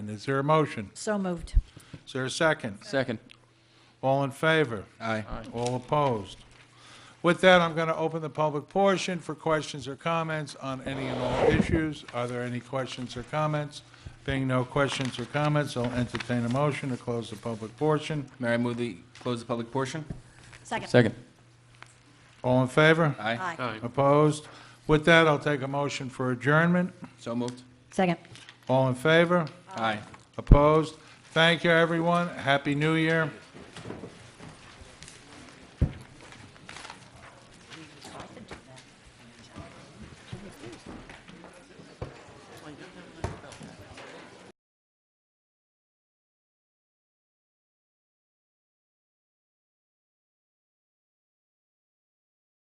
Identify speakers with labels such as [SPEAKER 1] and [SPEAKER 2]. [SPEAKER 1] And is there a motion?
[SPEAKER 2] So moved.
[SPEAKER 1] Is there a second?
[SPEAKER 3] Second.
[SPEAKER 1] All in favor?
[SPEAKER 3] Aye.
[SPEAKER 1] All opposed? With that, I'm going to open the public portion for questions or comments on any and all issues. Are there any questions or comments? Being no questions or comments, I'll entertain a motion to close the public portion.
[SPEAKER 3] Mayor, I move the, close the public portion?
[SPEAKER 2] Second.
[SPEAKER 3] Second.
[SPEAKER 1] All in favor?
[SPEAKER 3] Aye.
[SPEAKER 2] Aye.
[SPEAKER 1] Opposed? With that, I'll take a motion for adjournment.
[SPEAKER 3] So moved.
[SPEAKER 2] Second.
[SPEAKER 1] All in favor?
[SPEAKER 3] Aye.
[SPEAKER 1] Opposed? Thank you, everyone. Happy New Year.